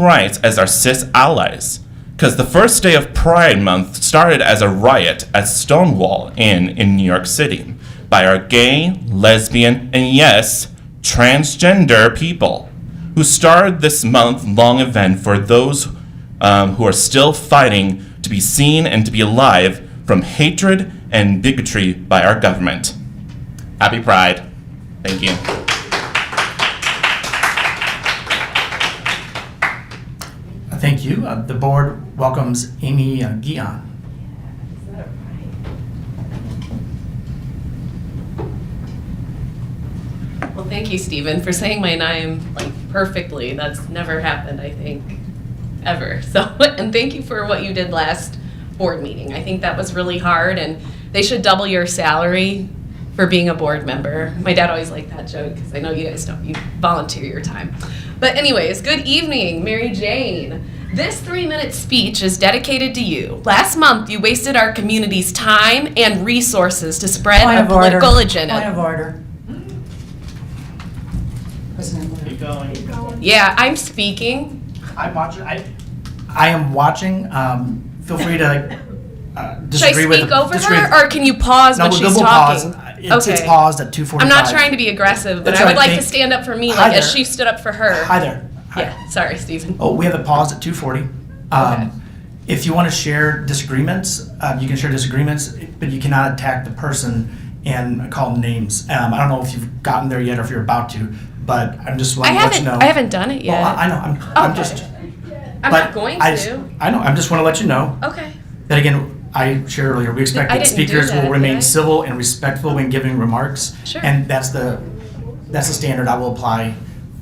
rights as our cis allies. Because the first day of Pride Month started as a riot at Stonewall Inn in New York City by our gay, lesbian, and yes, transgender people who started this month long event for those um, who are still fighting to be seen and to be alive from hatred and bigotry by our government. Happy Pride. Thank you. Thank you. Uh, The board welcomes Amy uh, Guion. Well, thank you, Stephen, for saying my name like perfectly. That's never happened, I think, ever. So, and thank you for what you did last board meeting. I think that was really hard, and they should double your salary for being a board member. My dad always liked that joke because I know you guys don't you volunteer your time. But anyways, good evening, Mary Jane. This three-minute speech is dedicated to you. Last month, you wasted our community's time and resources to spread Point a of order. political agenda. Point of order. President Blair. Keep going. Yeah, I'm speaking. I'm watching, I, I am watching. Um, Feel free to uh, disagree with. Should I speak the- over disagree with- her, or can you pause No, when we'll- she's we'll pause. Uh, talking? It's it's Okay. paused at 2:45. I'm not trying to be aggressive, but That's I would all right, like to thank- stand up for me, Hi like as there. she stood up for her. Hi there. Yeah, sorry, Stephen. Oh, we have it paused at 2:40. Okay. Um, If you want to share disagreements, uh, you can share disagreements, but you cannot attack the person and call them names. Um, I don't know if you've gotten there yet or if you're about to, but I'm just I wanting to let you haven't, know. I haven't done it Well, yet. I I know, I'm, I'm Okay. just. I'm but not going I just- to. I know, I'm just want to let you know Okay. that again, I shared earlier, we expect I that didn't do speakers that, will did I? remain civil and respectful when giving remarks. Sure. And that's the, that's the standard I will apply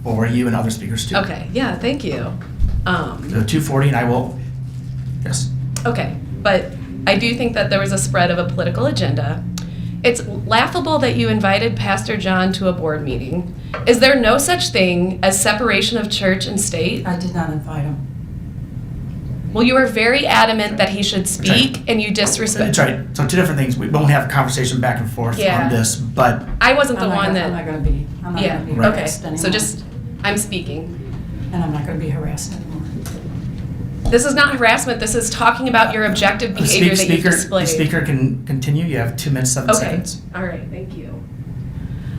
for you and other speakers too. Okay, yeah, thank you. Um, So 240 and I will, yes. Okay, but I do think that there was a spread of a political agenda. It's laughable that you invited Pastor John to a board meeting. Is there no such thing as separation of church and state? I did not invite him. Well, you were very adamant that he should speak, and you disrespect. That's right. So two different things. We won't have a conversation back and forth Yeah. on this, but I wasn't the I'm not one gonna- I'm not that. going to be, oh I'm not Yeah. going to be Right. Okay. harassed anymore. So just, I'm speaking. And I'm not going to be harassed anymore. This is not harassment. This is talking about your objective the behavior speak- that you've speaker, the displayed. speaker can continue. You have two minutes, seven Okay. seconds. All right. Thank you.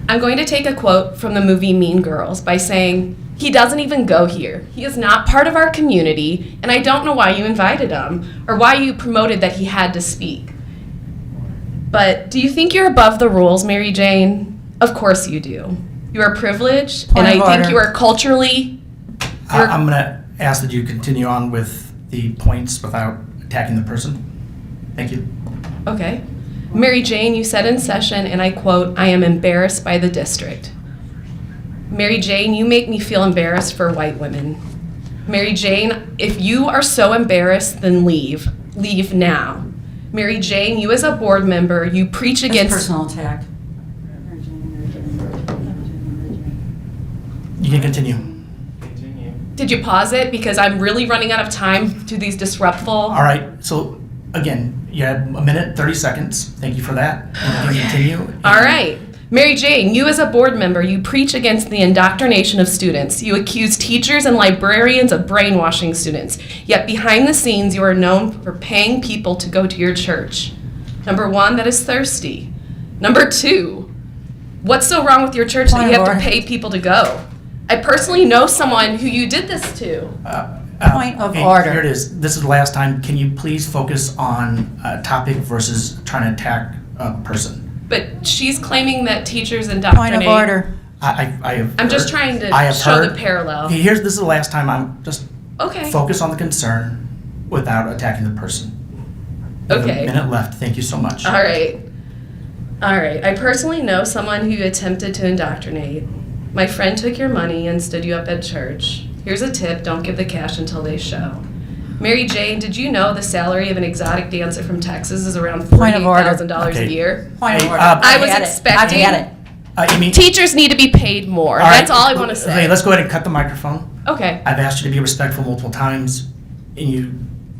I'm going to take a quote from the movie Mean Girls by saying, "He doesn't even go here. He is not part of our community, and I don't know why you invited him or why you promoted that he had to speak." But do you think you're above the rules, Mary Jane? Of course you do. You are privileged, and Point I of think order. you are culturally. I, You're- I'm going to ask that you continue on with the points without attacking the person. Thank you. Okay. Mary Jane, you said in session, and I quote, "I am embarrassed by the district." Mary Jane, you make me feel embarrassed for white women. Mary Jane, if you are so embarrassed, then leave. Leave now. Mary Jane, you as a board member, you preach It's against. personal attack. You can continue. Did you pause it? Because I'm really running out of time to these disruptful. All right. So again, you had a minute, 30 seconds. Thank you for that. You can continue. All right. Mary Jane, you as a board member, you preach against the indoctrination of students. You accuse teachers and librarians of brainwashing students. Yet behind the scenes, you are known for paying people to go to your church. Number one, that is thirsty. Number two, what's so wrong with your church that Point you of have to order. pay people to go? I personally know someone who you did this to. Uh, Point of hey, order. Here it is. This is the last time. Can you please focus on a topic versus trying to attack a person? But she's claiming that teachers indoctrinate. Point of order. I, I, I have. I'm just heard- trying to I have show the heard- parallel. Okay, Here's this is the last time I'm just Okay. focus on the concern without attacking the person. We have Okay. A minute left. Thank you so much. All right. All right. I personally know someone who attempted to indoctrinate. My friend took your money and stood you up at church. Here's a tip don't give the cash until they show. Mary Jane, did you know the salary of an exotic dancer from Texas is around Point of order. $48,000 a Okay. year? Point Hey, of order. uh, I was I've had it. expecting- I've had it. Uh, Amy. Teachers need to be paid more. all That's right, all I want to Okay, say. let's go ahead and cut the microphone. Okay. I've asked you to be respectful multiple times, and you.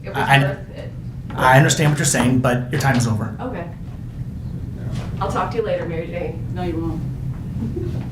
It was I- worth it. I understand what you're saying, but your time is over. Okay. I'll talk to you later, Mary Jane. No, you won't.